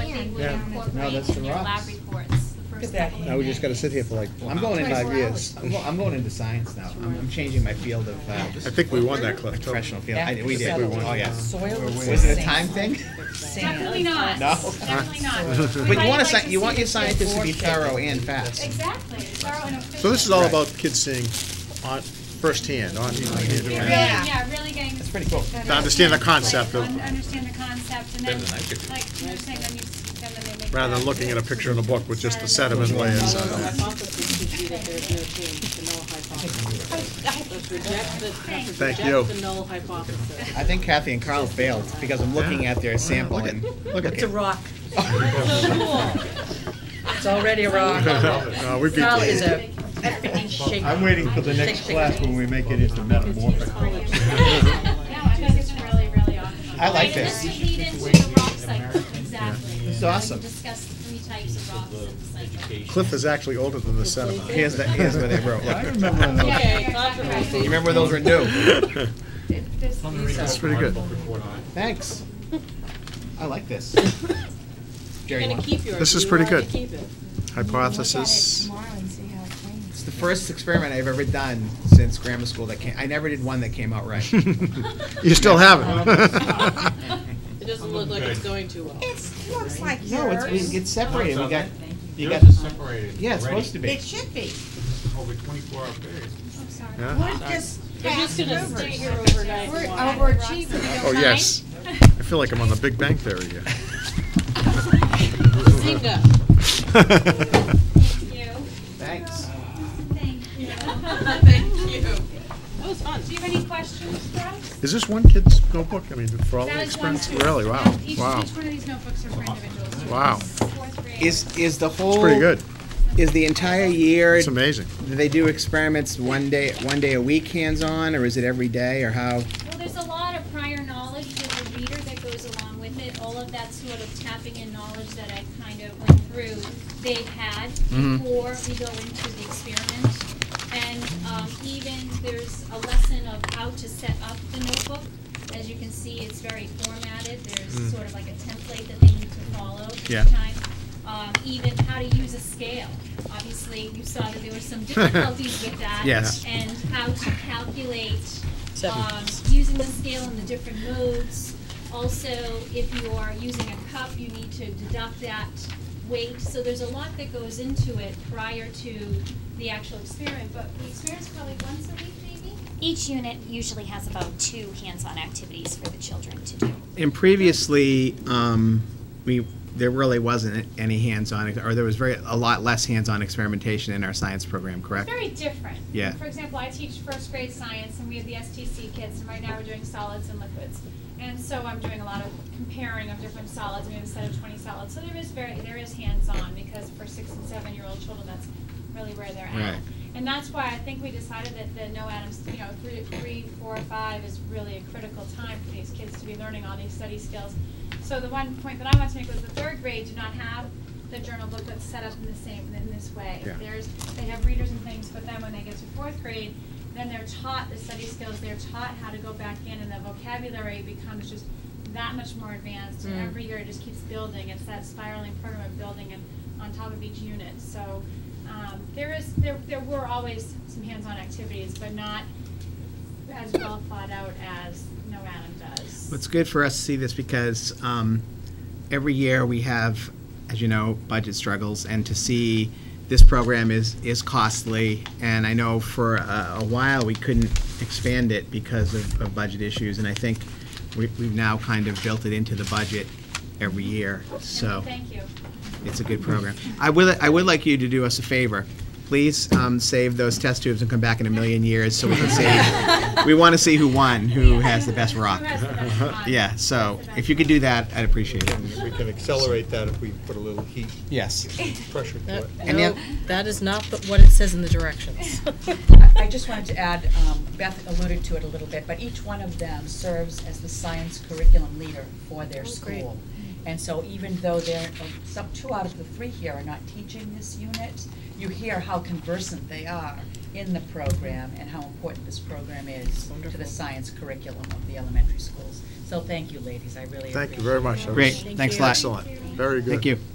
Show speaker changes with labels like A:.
A: No,
B: grades
A: that's
B: in
A: the
B: your lab
A: rocks.
B: reports, the first
C: Look at that.
B: couple of
A: Now we just gotta sit here for like, I'm going in five
B: 24
A: years.
B: hours.
A: I'm, go- I'm going into science now. I'm, I'm changing my field of, uh,
D: I think we won that,
A: my
D: Cliff.
A: professional field. I, we did,
D: settled.
A: oh, yeah.
C: Soil is
A: Was it a
C: sand.
A: time thing?
B: Definitely not.
A: No.
B: Definitely not. We
A: But you
B: might
A: want a,
B: like
A: sci- you
B: see
A: want your
B: the-
A: scientists to be
C: before
A: thorough and fast.
B: Exactly, thorough and efficient.
D: So this is all
A: Right.
D: about kids seeing on, firsthand, on,
B: Really,
D: to
B: yeah, really getting.
A: That's pretty cool.
D: understand the concept of,
B: un- Understand the concept and then,
E: Better than I could do.
B: like, you're saying, then you, s- then they make.
D: rather than looking at a picture in a book with just the sediment layers.
F: Although the hypothesis could be that there's no change to null hypothesis. Let's reject the, let's
D: Thank you.
F: reject the null hypothesis.
A: I think Kathy and Carl failed because I'm looking at their sample and,
D: Look at
C: It's a
D: it.
C: rock.
F: So cool.
C: It's already a rock.
D: No, we beat
C: Carl
D: them.
C: is a effing shaker.
G: I'm waiting for the next class when we make it into metamorphic.
B: No, I think it's really, really awesome.
A: I like
B: Right,
A: this.
B: And this would lead into the rock cycle, exactly. This
A: is awesome.
B: Discuss the three types of rocks in the cycle.
D: Cliff is actually older than the sediment.
A: here's the, here's where they wrote.
G: I
A: Look.
G: remember when those-
B: Yeah,
F: Okay,
B: yeah,
F: controversy.
A: You remember those were new?
G: uh,
D: That's pretty good.
A: Thanks. I like this.
F: You're
A: Jerry,
F: gonna
A: want-
F: keep yours.
D: This is
F: You
D: pretty good.
F: wanted to keep it.
D: Hypothesis.
A: it's the first experiment I've ever done since grammar school that came, I never did one that came out right.
D: You still have it.
F: It doesn't look like it's going too well.
H: It looks like
A: No, it's, we-
H: yours.
A: it's separated, we got, you got,
E: Yours is separated.
A: yeah, it's supposed to be.
H: It should be.
E: Over twenty-four hour period.
B: I'm sorry.
D: Yeah.
H: Wood just
F: They're
H: passed
F: just gonna
H: over.
F: stay here overnight.
H: We're
F: and watch.
H: overachieving.
D: Oh, yes. I feel like I'm on the Big Bang Theory here.
F: Zynga.
B: Thank you.
A: Thanks.
B: Thank you.
F: Thank you. That was fun.
B: Do you have any questions for us?
D: Is this one kid's notebook? I mean, for all the
B: That is one
D: experiments?
B: student.
D: Really? Wow,
B: No, Each, each one
D: wow.
B: of these notebooks are for individuals.
D: Wow.
B: Fourth grade.
A: Is, is the whole.
D: It's pretty good.
A: Is the entire year,
D: It's
A: do
D: amazing.
A: they do experiments one day, one day a week hands-on, or is it every day, or how?
B: Well, there's a lot of prior knowledge as a reader that goes along with it. All of that sort of tapping in knowledge that I kind of went through, they've had before we go into the experiment. And um, even there's a lesson of how to set up the notebook. As you can see, it's very formatted. There's sort of like a template that they need to follow each
D: Yeah.
B: time. Um, even how to use a scale. Obviously, you saw that there were some difficulties with that.
A: Yes.
B: And how to calculate
C: Seven.
B: um, using the scale in the different modes. Also, if you are using a cup, you need to deduct that weight. So there's a lot that goes into it prior to the actual experiment, but the experiment's probably once a week maybe?
I: Each unit usually has about two hands-on activities for the children to do.
A: And previously, um, we, there really wasn't any hands-on, or there was very, a lot less hands-on experimentation in our science program, correct?
B: Very different.
A: Yeah.
B: For example, I teach first grade science and we have the STC kids and right now we're doing solids and liquids. And so I'm doing a lot of comparing of different solids, we have a set of twenty solids. So there is very, there is hands-on because for six and seven-year-old children, that's really where they're at.
A: Right.
B: And that's why I think we decided that the no atoms, you know, three, three, four, five is really a critical time for these kids to be learning all these study skills. So the one point that I wanted to make was the third grade do not have the journal book that's set up in the same, in this way.
D: Yeah.
B: There's, they have readers and things, but then when they get to fourth grade, then they're taught the study skills, they're taught how to go back in, and the vocabulary becomes just that much more advanced, and every year it just keeps building, it's that spiraling program of building and on top of each unit, so, um, there is, there, there were always some hands-on activities, but not as well thought out as No Adam does.
A: Well, It's good for us to see this because um, every year we have, as you know, budget struggles, and to see this program is, is costly. And I know for a, a while, we couldn't expand it because of, of budget issues, and I think we, we've now kind of built it into the budget every year, so
B: And Thank you.
A: it's a good program. I would, I would like you to do us a favor. Please um, save those test tubes and come back in a million years so we can see, we want to see who won, who has the best rock.
B: Who has the best rock?
A: Yeah, so if you could do that, I'd appreciate it.
G: We can accelerate that if we put a little heat,
A: Yes.
G: pressure to it.
A: And the
F: No,
A: oth-
F: that is not the- what it says in the directions.
C: I just wanted to add, um, Beth alluded to it a little bit, but each one of them serves as the science curriculum leader for their
F: Oh, great.
C: school. And so even though they're, uh, some, two out of the three here are not teaching this unit, you hear how conversant they are in the program and how important this program is to the
F: Wonderful.
C: science curriculum of the elementary schools. So thank you, ladies, I really appreciate it.
D: Thank you very much. That was
A: Great, thanks a lot.
D: Excellent. Very good.
A: Thank you.